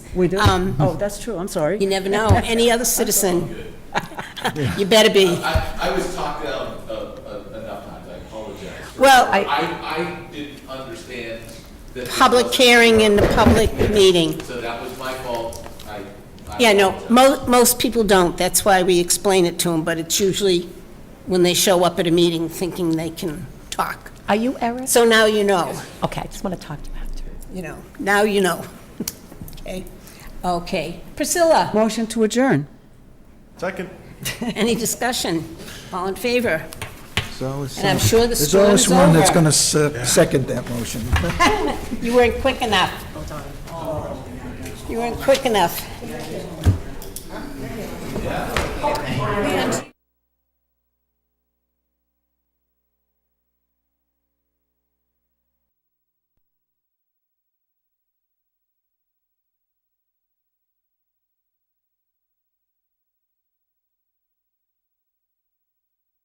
We do? Um, Oh, that's true, I'm sorry. You never know. Any other citizen? You better be. I, I was talked out of, of enough times, I apologize. for- Well- I, I didn't understand that. this Public was- hearing in the public meeting. So that was my fault, I. I Yeah, no, apologize. mo- most people don't. That's why we explain it to them, but it's usually when they show up at a meeting thinking they can talk. Are you Eric? So now you know, Okay, I just want to talk to you after. you know, now you know. Okay, okay. Priscilla, Motion to adjourn. Second. any discussion? All in favor? So it's- And I'm sure the There's storm always is one that's over. going to second that motion. You weren't quick enough. You weren't quick enough.